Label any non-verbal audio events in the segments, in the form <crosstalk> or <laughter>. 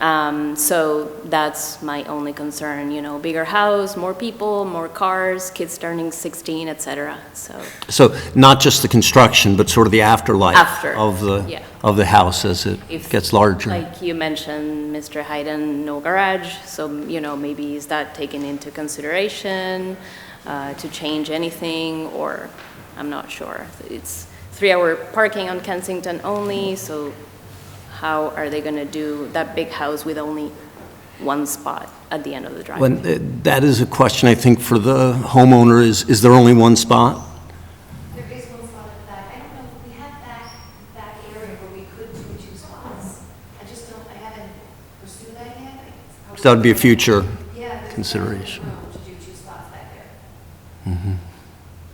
Um, So that's my only concern, you know, bigger house, more people, more cars, kids turning 16, et cetera, so. So not just the construction, but sort of the afterlife? After, Of yeah. the, of the house as it if- gets larger? Like you mentioned, Mr. Hayden, no garage, so, you know, maybe is that taken into consideration uh, to change anything, or, I'm not sure. It's three-hour parking on Kensington only, so how are they going to do that big house with only one spot at the end of the driveway? When, uh, that is a question, I think, for the homeowner, is, is there only one spot? There is one spot at the back. I don't know, we have that, that area where we could do two spots. I just don't, I haven't pursued that yet. I- So that'd be a future Yeah, there's consideration. definitely room To do two spots back there. I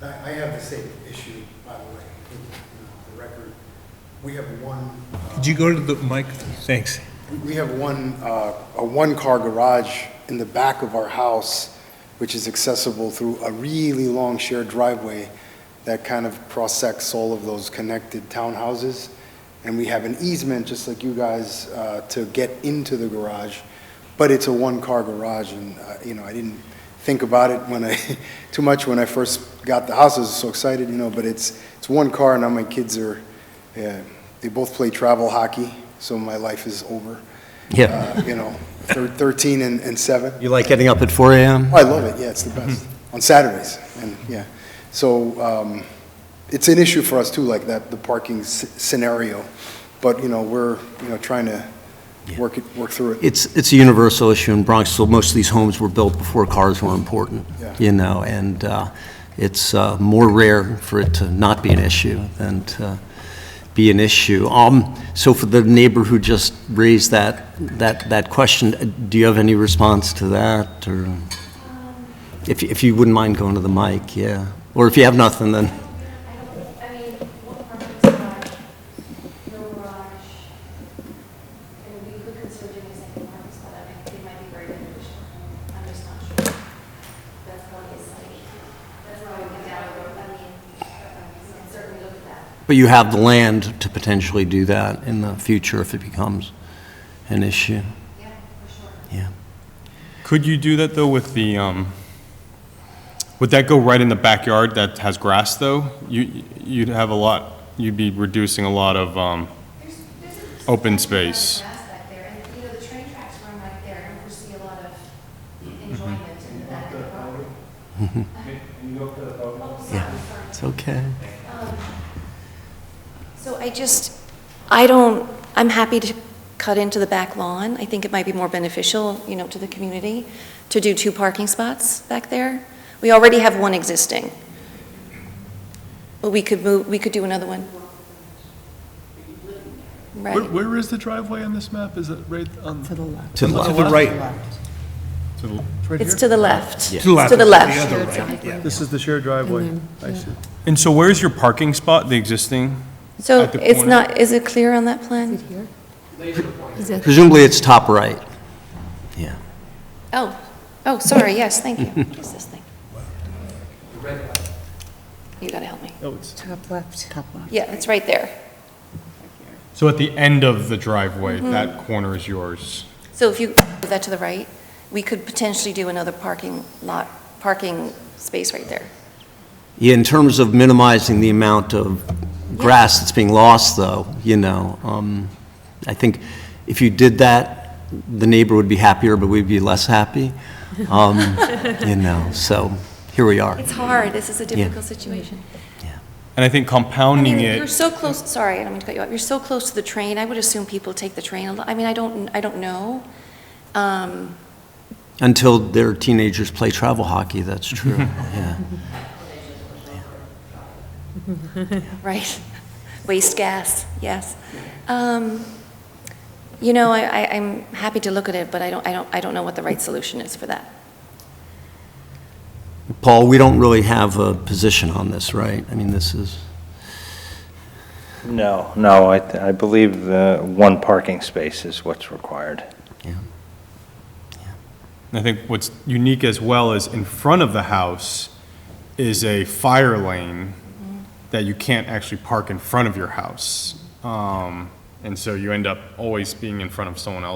I have the same issue, by the way, in in the record. We have one, uh, Could you go to the mic? Thanks. we have one, uh, a one-car garage in the back of our house, which is accessible through a really long shared driveway that kind of cross-sects all of those connected townhouses. And we have an easement, just like you guys, uh, to get into the garage, but it's a one-car garage, and, uh, you know, I didn't think about it when I, <laughs> too much when I first got the house, I was so excited, you know, but it's, it's one car, and now my kids are, uh, they both play travel hockey, so my life is over. Yeah. Uh, You know, thir- 13 and and 7. You like getting up at 4 AM? Oh, I love it, yeah, it's the best, on Saturdays, and, yeah. So um, it's an issue for us too, like that, the parking s- scenario, but, you know, we're, you know, trying to work it, work through it. It's, it's a universal issue in Bronxville. Most of these homes were built before cars were important, Yeah. you know, and uh, it's uh, more rare for it to not be an issue than to be an issue. Um, So for the neighbor who just raised that, that, that question, uh, do you have any response to that, or? Um, If, if you wouldn't mind going to the mic, yeah. Or if you have nothing, then, I don't, I mean, one parking spot, no garage. And we could consider doing a second parking spot. I think it might be very beneficial. I'm just not sure. That's probably a site. That's probably we down the road. I mean, I can certainly look at that. but you have the land to potentially do that in the future if it becomes an issue, Yeah, for sure. yeah. Could you do that, though, with the, um, would that go right in the backyard that has grass, though? You, you'd have a lot, you'd be reducing a lot of, um, There's, there's a. substantial Open amount of space. Grass back there, and, you know, the train tracks run right there, and we see a lot of enjoyment in that. property. Oh, sorry, sorry. It's okay. So I just, I don't, I'm happy to cut into the back lawn. I think it might be more beneficial, you know, to the community to do two parking spots back there. We already have one existing. But we could move, we could do another one. Where, Right. where is the driveway on this map? Is it right on? To the left. To the To left. the right. to the- It's to the left. Yeah. To the left. other right, yeah. This is the shared driveway. I see. and so where's your parking spot, the existing? So At the it's corner. not, is it clear on that plan? Here? Is it? Presumably, it's top right. Yeah. Oh, oh, sorry, <laughs> yes, thank you. What is this thing? You gotta help me. Oh, it's, Top left. Top left. Yeah, it's right there. So at the end of the driveway, that corner is yours. So if you move that to the right, we could potentially do another parking lot, parking space right there. Yeah, in terms of minimizing the amount of grass that's being lost, though, you know, um, I think if you did that, the neighbor would be happier, but we'd be less happy. <laughs> Um, You know, so here we are. It's hard, this is a difficult situation. And I think compounding it. You're so close, sorry, I don't mean to cut you off, you're so close to the train, I would assume people take the train a lot, I mean, I don't, I don't know. Um, Until their teenagers play travel hockey, that's <laughs> true, yeah. Right, waste gas, yes. Um, You know, I, I- I'm happy to look at it, but I don't, I don't, I don't know what the right solution is for that. Paul, we don't really have a position on this, right? I mean, this is, No, no, I, th- I believe the one parking space is what's required. yeah. And I think what's unique as well is in front of the house is a fire lane that you can't actually park in front of your house. Um, And so you end up always being in front of someone else.